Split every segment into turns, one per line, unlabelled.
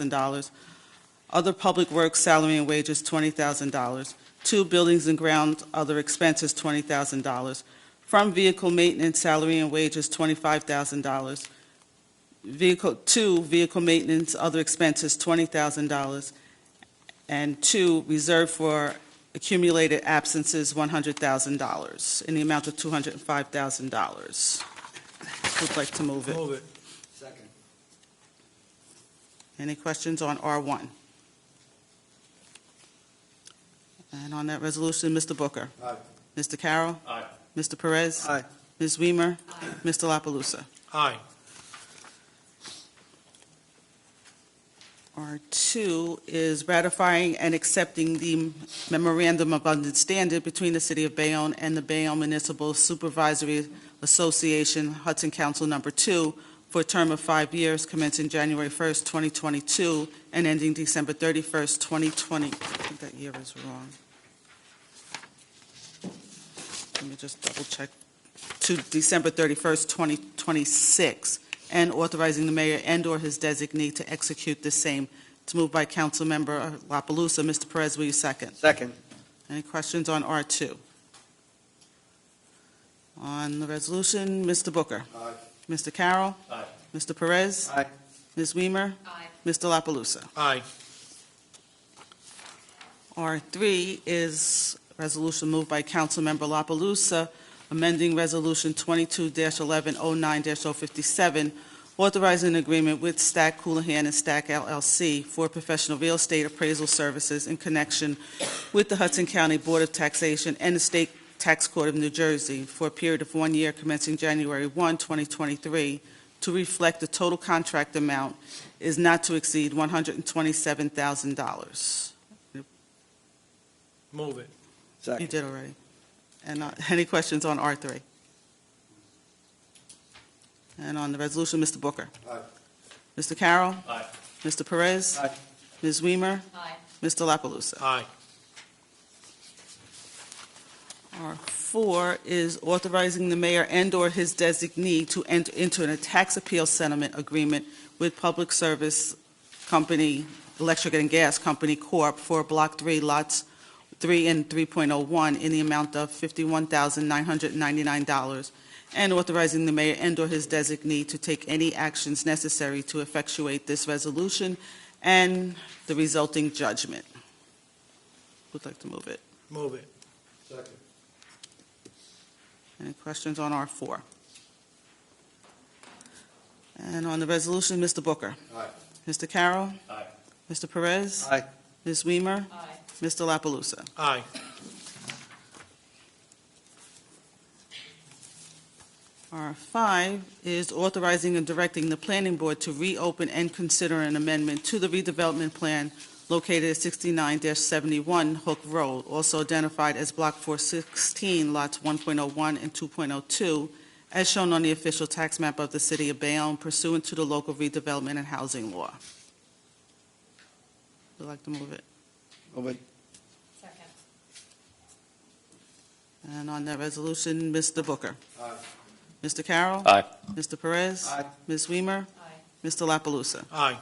$1,000. Other public works, salary and wages, $20,000. Two buildings and grounds, other expenses, $20,000. From vehicle maintenance, salary and wages, $25,000. Vehicle, two, vehicle maintenance, other expenses, $20,000. And two, reserved for accumulated absences, $100,000, in the amount of $205,000. Would like to move it.
Move it.
Second.
Any questions on R1? And on that resolution, Mr. Booker?
Aye.
Mr. Carroll?
Aye.
Mr. Perez?
Aye.
Ms. Weimer? Mr. La Palusa?
Aye.
R2 is ratifying and accepting the memorandum of understanding between the City of Bayonne and the Bayonne Municipal Supervisory Association Hudson Council Number 2 for a term of five years commencing January 1st, 2022, and ending December 31st, 2020. I think that year is wrong. Let me just double-check. To December 31st, 2026, and authorizing the mayor and/or his designee to execute the same. It's moved by Councilmember La Palusa. Mr. Perez, will you second?
Second.
Any questions on R2? On the resolution, Mr. Booker.
Aye.
Mr. Carroll.
Aye.
Mr. Perez.
Aye.
Ms. Weimer.
Aye.
Mr. La Palusa.
Aye.
R3 is resolution moved by Councilmember La Palusa, amending Resolution 22-1109-057, authorizing an agreement with Stack Houlihan and Stack LLC for professional real estate appraisal services in connection with the Hudson County Board of Taxation and the State Tax Court of New Jersey for a period of one year commencing January 1, 2023, to reflect the total contract amount is not to exceed $127,000.
Move it.
You
Second.
did already. And uh, any questions on R3? And on the resolution, Mr. Booker?
Aye.
Mr. Carroll?
Aye.
Mr. Perez?
Aye.
Ms. Weimer?
Aye.
Mr. La Palusa?
Aye.
R4 is authorizing the mayor and/or his designee to enter into a tax appeal settlement agreement with Public Service Company, Electric and Gas Company Corp. for Block 3, Lots 3 and 3.01 in the amount of $51,999, and authorizing the mayor and/or his designee to take any actions necessary to effectuate this resolution and the resulting judgment. Would like to move it.
Move it.
Second.
Any questions on R4? And on the resolution, Mr. Booker.
Aye.
Mr. Carroll.
Aye.
Mr. Perez.
Aye.
Ms. Weimer.
Aye.
Mr. La Palusa.
Aye.
R5 is authorizing and directing the planning board to reopen and consider an amendment to the redevelopment plan located at 69-71 Hook Road, also identified as Block 416, Lots 1.01 and 2.02, as shown on the official tax map of the city of Bayonne pursuant to the local redevelopment and housing law. Would like to move it.
Move it.
Second.
And on that resolution, Mr. Booker.
Aye.
Mr. Carroll.
Aye.
Mr. Perez.
Aye.
Ms. Weimer.
Aye.
Mr. La Palusa.
Aye.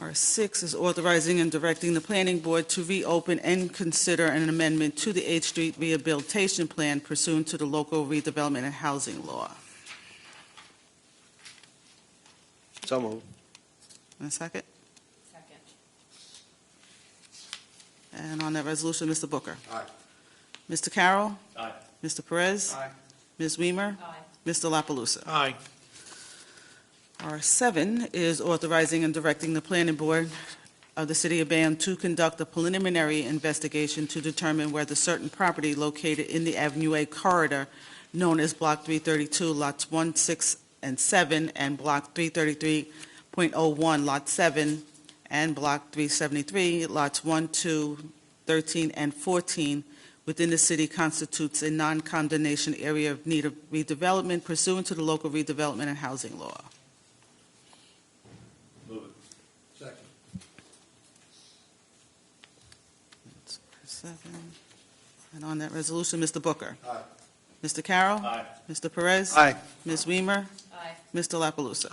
R6 is authorizing and directing the planning board to reopen and consider an amendment to the 8th Street Rehabilitation Plan pursuant to the local redevelopment and housing law.
So moved.
And a second?
Second.
And on that resolution, Mr. Booker.
Aye.
Mr. Carroll.
Aye.
Mr. Perez.
Aye.
Ms. Weimer.
Aye.
Mr. La Palusa.
Aye.
R7 is authorizing and directing the planning board of the city of Bayonne to conduct a preliminary investigation to determine whether certain property located in the Avenue A corridor, known as Block 332, Lots 1, 6, and 7, and Block 333.01, Lot 7, and Block 373, Lots 1, 2, 13, and 14, within the city constitutes a non-condemnation area of need of redevelopment pursuant to the local redevelopment and housing law.
Move it.
Second.
Seven. And on that resolution, Mr. Booker.
Aye.
Mr. Carroll.
Aye.
Mr. Perez.
Aye.
Ms. Weimer.
Aye.
Mr. La Palusa.